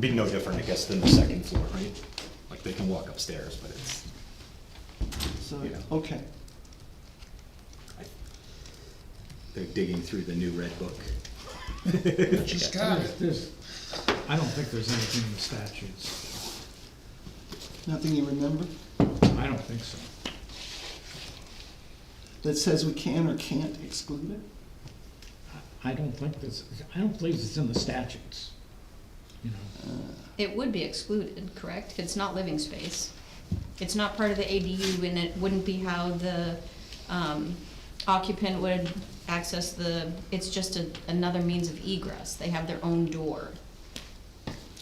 Be no different, I guess, than the second floor, right? Like, they can walk upstairs, but it's, So, Yeah. okay, I- they're digging through the new red book. She's got it. There's, I don't think there's anything in the statutes. nothing you remember I don't think so. that says we can or can't exclude it? I don't think this, I don't believe it's in the statutes, you know. It would be excluded, correct? It's not living space. It's not part of the ADU and it wouldn't be how the um, occupant would access the, it's just a- another means of egress. They have their own door.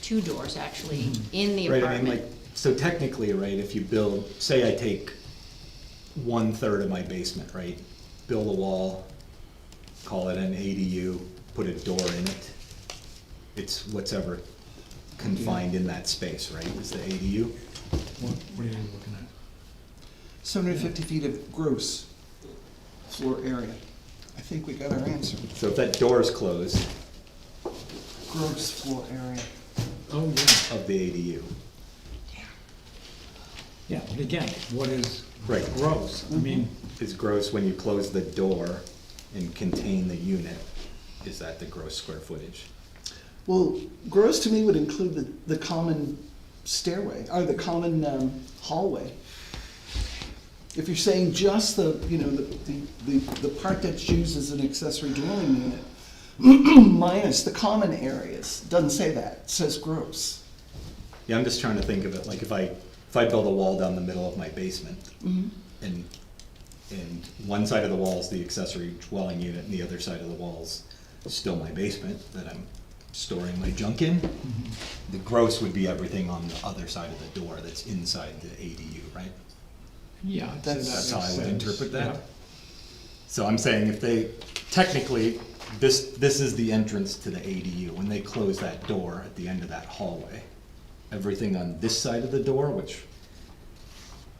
Two doors, actually, in the Mm-hmm. Right, I mean, like, apartment. so technically, right, if you build, say I take one-third of my basement, right? Build a wall, call it an ADU, put a door in it. It's whatever confined in that space, right, is the ADU? What, what are you looking at? Seven hundred fifty feet of gross floor area. I think we got our answer. So if that door is closed Gross floor area. Oh, yeah. of the ADU, Yeah, but again, what is Right. gross? I mean, is gross when you close the door and contain the unit, is that the gross square footage? Well, gross to me would include the, the common stairway, or the common um, hallway. If you're saying just the, you know, the, the- the, the part that's used as an accessory dwelling unit, minus the common areas, doesn't say that, it says gross. Yeah, I'm just trying to think of it, like if I, if I build a wall down the middle of my basement, and, and one side of the wall is the accessory dwelling unit, and the other side of the wall's still my basement that I'm storing my junk in, the gross would be everything on the other side of the door that's inside the ADU, right? yeah. I'd say that That's how I makes would sense. interpret Yeah. that. So I'm saying if they, technically, this, this is the entrance to the ADU. When they close that door at the end of that hallway, everything on this side of the door, which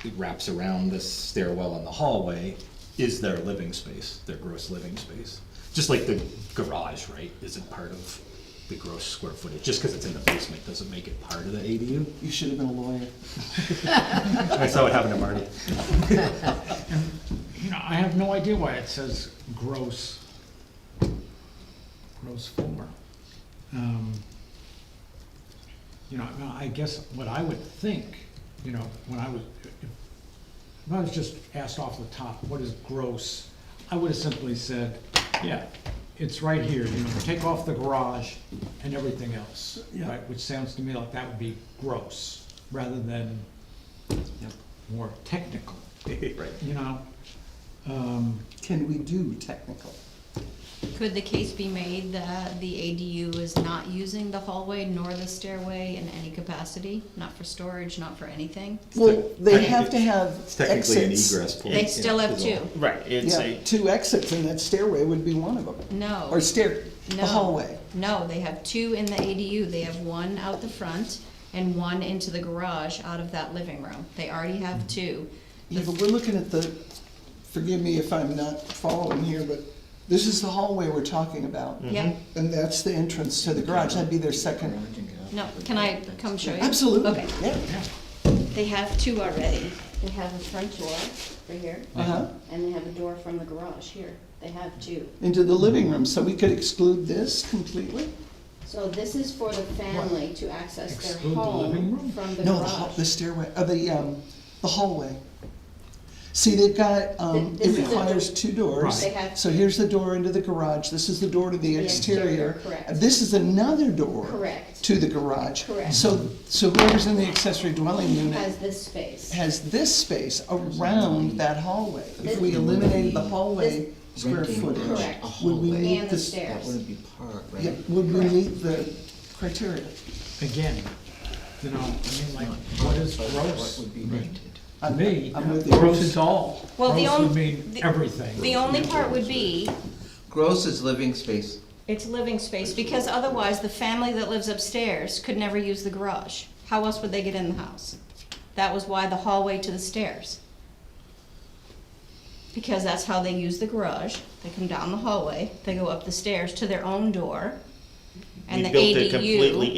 it wraps around this stairwell in the hallway, is their living space, their gross living space. Just like the garage, right, isn't part of the gross square footage. Just because it's in the basement doesn't make it part of the ADU. You should have been a lawyer. I saw what happened to Marty. You know, I have no idea why it says gross, gross floor. Um, You know, I mean, I guess what I would think, you know, when I was, if I was just asked off the top, what is gross? I would have simply said, yeah, it's right here, you know, take off the garage and everything else. Yeah. right? Which sounds to me like that would be gross, rather than more technical, Right. you know? Um, Can we do technical? Could the case be made that the ADU is not using the hallway nor the stairway in any capacity? Not for storage, not for anything? Well, they have to have It's technically an exits. egress point. They still have two. Right, it's Yeah, a, two exits and that stairway would be one of them. No. Or stair, No. the hallway. No, they have two in the ADU. They have one out the front and one into the garage out of that living room. They already Mm-hmm. have two. Yeah, but we're looking at the, forgive me if I'm not following here, but this is the hallway we're talking about. Mm-hmm. Yep, And that's the entrance to the garage, that'd be their second. no, can I come show you? Absolutely, Okay, yeah, They have two already. They have a front door right here, uh-huh, and they have a door from the garage here. They have two. into the living room, so we could exclude this completely? So this is for the family to access Exclude their the living room? home from the No, the hall, garage. the stairway, uh, the, um, the hallway. See, they've got, um, Th- it this is the- requires two doors. Right. They have- So here's the door into the garage, this is the door to the The exterior, exterior. correct. This is another door. Correct. To the garage. Correct. So, so whoever's in the accessory dwelling unit Has this space. has this space around that hallway. If we This- eliminated the hallway this- square Renting footage, Correct. a would we hallway. meet And the this? stair. That wouldn't be part, Yeah, right? would we Correct. meet the criteria? again, you know, I mean, like, what is But What gross? would be rented? To me, I'm with you. gross is all. Well, the Gross would on- mean the- everything. The only part would be, Gross is living space. it's living space, because otherwise the family that lives upstairs could never use the garage. How else would they get in the house? That was why the hallway to the stairs. Because that's how they use the garage. They come down the hallway, they go up the stairs to their own door. and we the built it ADU completely